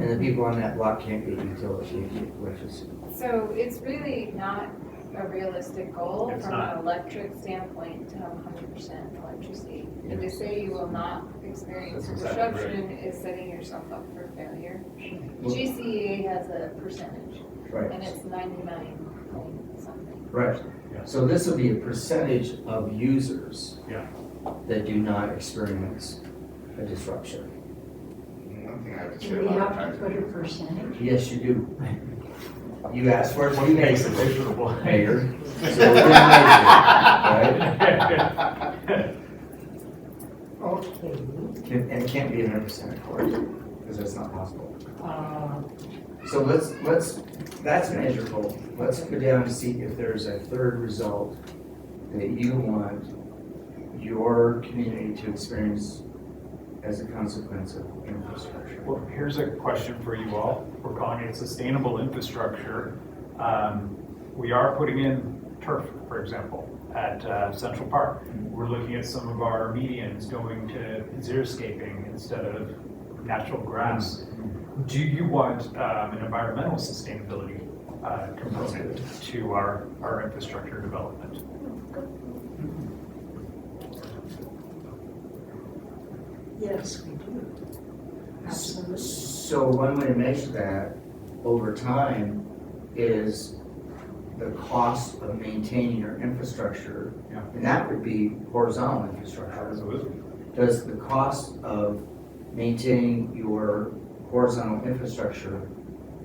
And the people on that block can't get utilities, can't get electricity. So it's really not a realistic goal It's from not. an electric standpoint to have hundred percent electricity. And to say you will not experience That's exactly disruption is setting yourself up for failure. Well- GCEA has a percentage and Right, it's ninety-nine point something. right. Yeah. So this will be a percentage of users Yeah. that do not experience a disruption. One thing I have to say Do we about have to put a advertising. percentage? Yes, you do. You ask for it, you make it, Hey. mayor. So we're gonna measure it, Right? Okay, Can- And it can't be hundred percent, of course, because that's not possible. uh, So let's, let's, that's measurable. Let's go down and see if there's a third result that you want your community to experience as a consequence of infrastructure. Well, here's a question for you all. We're calling it sustainable infrastructure. Um, We are putting in turf, for example, at uh, Central Park. We're looking at some of our medians going to xeriscaping instead of natural grass. Do you want um, an environmental sustainability uh, component to our, our infrastructure development? yes, we do. Absolutely. So one way to measure that over time is the cost of maintaining your infrastructure. Yeah. And that would be horizontal infrastructure. Absolutely. Does the cost of maintaining your horizontal infrastructure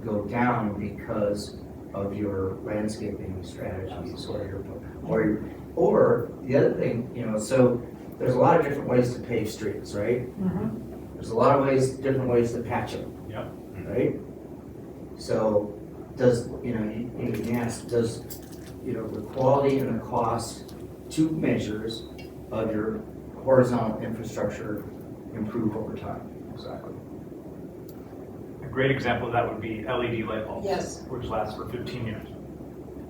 go down because of your landscaping strategies or your, or, your- or the other thing, you know, so there's a lot of different ways to pave streets, right? Mhm. There's a lot of ways, different ways to patch them. Yep. Right? So does, you know, you you can ask, does, you know, the quality and the cost, two measures of your horizontal infrastructure improve over time. Exactly. A great example of that would be LED light bulbs. Yes. Which last for 15 years.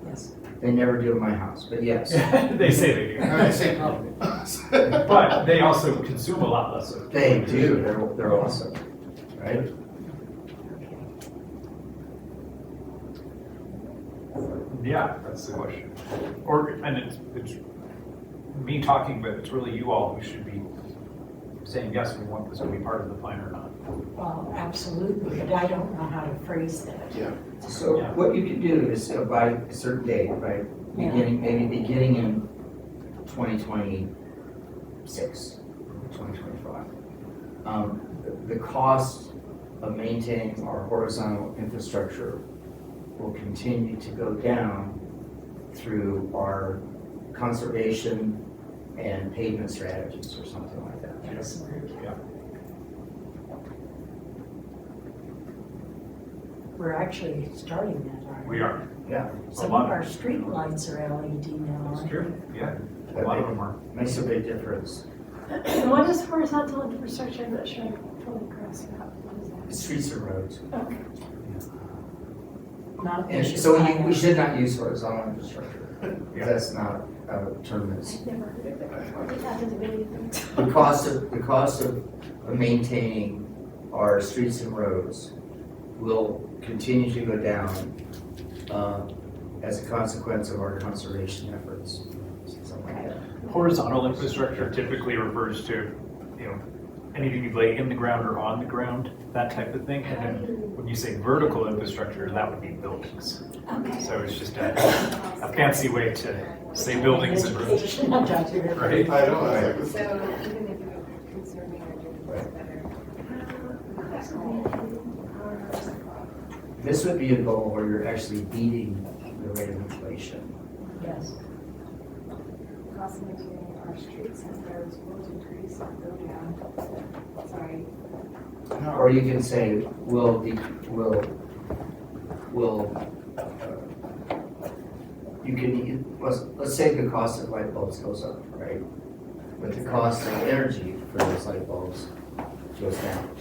Yes. They never do in my house, but yes. they say they do. No, it's the same problem. But they also consume a lot less of They do, they're, they're awesome, right? Yeah, that's the question. Or, and it's, it's me talking, but it's really you all who should be saying, yes, we want this to be part of the plan or not. Well, absolutely, but I don't know how to phrase that. Yeah. So what you can do is uh, by a certain date, right, beginning, maybe beginning in twenty twenty-six, twenty twenty-five. Um, the, the cost of maintaining our horizontal infrastructure will continue to go down through our conservation and pavement strategies or something like that. Excellent. Yeah. We're actually starting that, aren't we? We are. Yeah, Some of our streetlights are LED now, It's aren't true. Yeah, a lot of them are. makes a big difference. What is horizontal infrastructure? I'm not sure I can fully grasp that. What is that? Streets and roads. Okay. they? Not that And you so plan we, we on. should not use horizontal infrastructure. Yeah. That's not a term that's, I've never heard of it before. That doesn't mean anything. the cost of, the cost of maintaining our streets and roads will continue to go down, uh, as a consequence of our conservation efforts, something like that. Horizontal infrastructure typically refers to, you know, anything you lay in the ground or on the ground, that type of thing. And then when you say vertical infrastructure, that would be buildings. Okay. So it's just a, a fancy way to say buildings and roads, Education, I'm not sure. right? I know, I was So like, even if you're conserving or doing things better, Uh, This would be a goal where you're actually beating the rate of inflation. Yes. cost of maintaining our streets and roads will decrease or go down. Sorry. Or you can say, will, the will, will, you can, let's, let's say the cost of light bulbs goes up, right? But the cost of energy for those light bulbs goes down.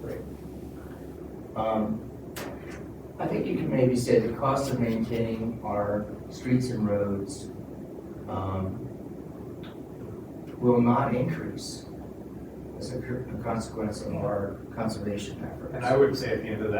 Right. Um, I think you can maybe say the cost of maintaining our streets and roads um, will not increase as a cur- a consequence of our conservation efforts. And I would say at the end of that.